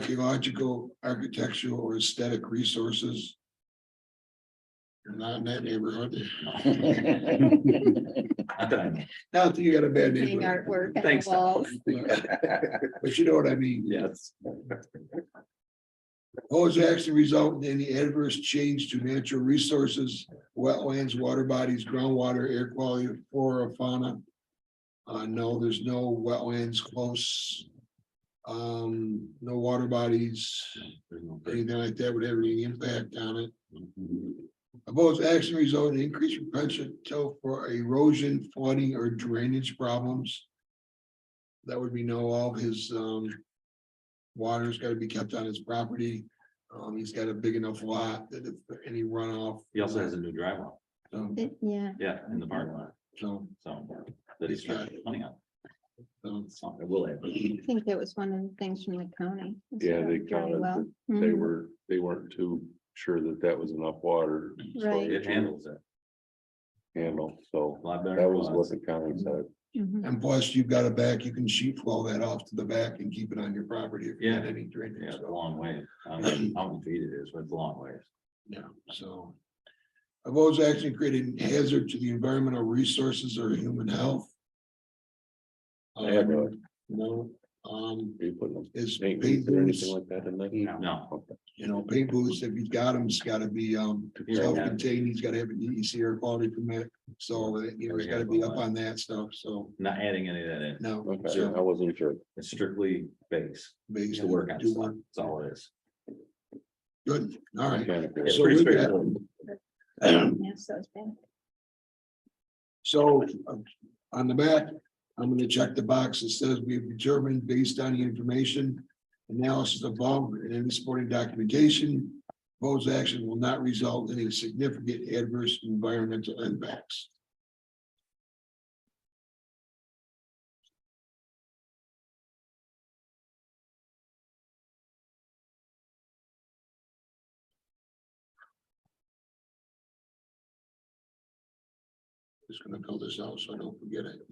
archaeological, architectural, or aesthetic resources. You're not in that neighborhood. Not that you got a bad Hang neighborhood, artwork. on the Thanks. walls. but you know what I mean. Yes. Proposed action result in any adverse change to natural resources, wetlands, water bodies, groundwater, air quality, flora, fauna. Uh, no, there's no wetlands close. Um, no water bodies, anything like that would have any impact on it. Proposed action result in increased potential for erosion, flooding, or drainage problems. That would be no, all of his, um. Water's gotta be kept on his property. Um, he's got a big enough lot that if any runoff. He also has a new drywall, So, It- Yeah, yeah, in the parking lot, so, so that he's trying to money on. so, So it will have. I think that was one of the things from the county. was Yeah, about they dry counted well. They Mhm. were, they weren't too sure that that was enough water Right. It handles it to handle, so a lot better. that was than what the county said. Mhm. and plus you've got a back, you can sheet flow that off to the back and keep it on your property. if you had Yeah. Any Yeah, drainage. it's a so. long way. I don't know How many feet it is, but it's a long ways. Yeah, so. Proposed action creating hazard to the environmental resources or human health. I had no, Um, No, um, are you putting them is paint paint booths or anything booths, like that in there? No, Okay. you know, paint booths, if you've got them, it's gotta be, um, Yeah, yeah. self-contained, he's gotta have an EDC air quality permit. So, uh, you know, he's gotta be up on that stuff, so, not adding any of that in. no. Okay, I so wasn't sure. It's strictly base. based to work on do stuff. one. That's all it is. Good, all right. It's So pretty with that- straightforward. Yes, those bad. So uh, on the back, I'm gonna check the box that says we've determined based on the information. Analysis above and any supporting documentation, proposed action will not result in any significant adverse environmental impacts. Just gonna fill this out so I don't forget it.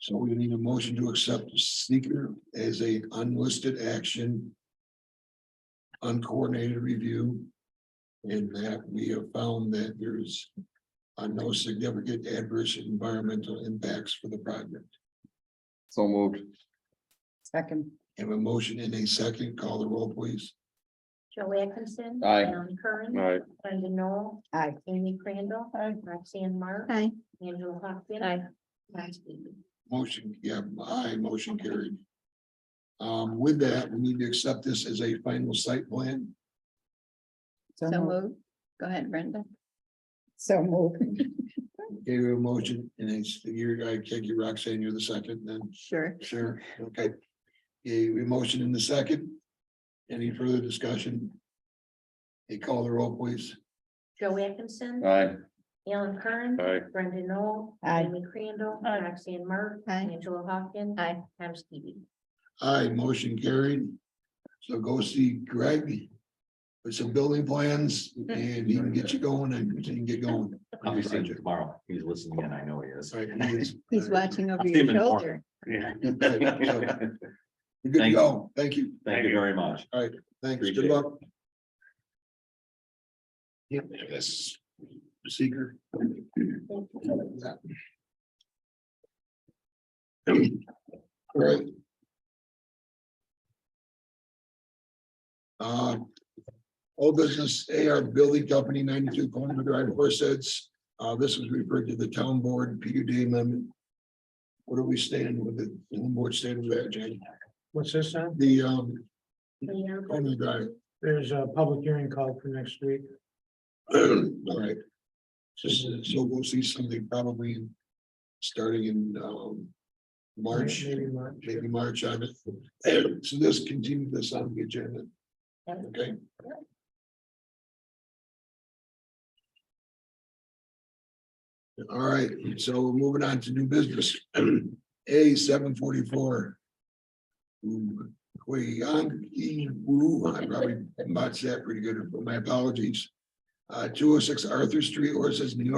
So we need a motion to accept the seeker as a unlisted action. Uncoordinated review. And that we have found that there's uh, no significant adverse environmental impacts for the project. So moved. Second, Have a motion in a second, call the roll please. Joe Atkinson. Aye. Alan Curran. All right, Brenda Noel. aye. Amy Crandall. Roxanne Mark. Hi, Angela Hawken. Aye. Last meeting. Motion, yeah, aye, motion carried. Um, with that, we need to accept this as a final site plan. So so moved. move. Go ahead, Brenda. So moved. Gave you a motion and it's, you're, I take you Roxanne, you're the second then. Sure. Sure, okay. A motion in the second. Any further discussion? A call the roll, please. Joe Atkinson. aye, Alan Curran. aye, Brenda Noel. Aye. Amy Crandall. Roxanne Mark. Aye. Angela Hawken. Aye. Tom Stevie. Aye, motion carried. So go see Greg. With some building plans and he can get you going and you can get going. I'll be seeing you tomorrow. He's listening and I know he is. Right, he is. He's watching over I'll see your him in the morning. shoulder. Yeah. You're Good to Thank you. go. Thank you. Thank you very much. Thanks, Appreciate good it. luck. Yep, yes. Seeker. Right. Uh, old business AR Building Company ninety-two Coleman Drive, Horseheads. Uh, this was referred to the town board, PUD amendment. What are we standing with the, the board standing with that, Jane? What's this on? The, um, Leon Coleman Drive. There's a public hearing called for next week. All right. So, so we'll see something probably in- starting in, um, March, Maybe March. maybe March on it. So this continue this on the agenda, okay? All right, so we're moving on to new business. A seven forty-four. Wu, I probably botched that pretty good. My apologies. Uh, two oh six Arthur Street, or it says New York.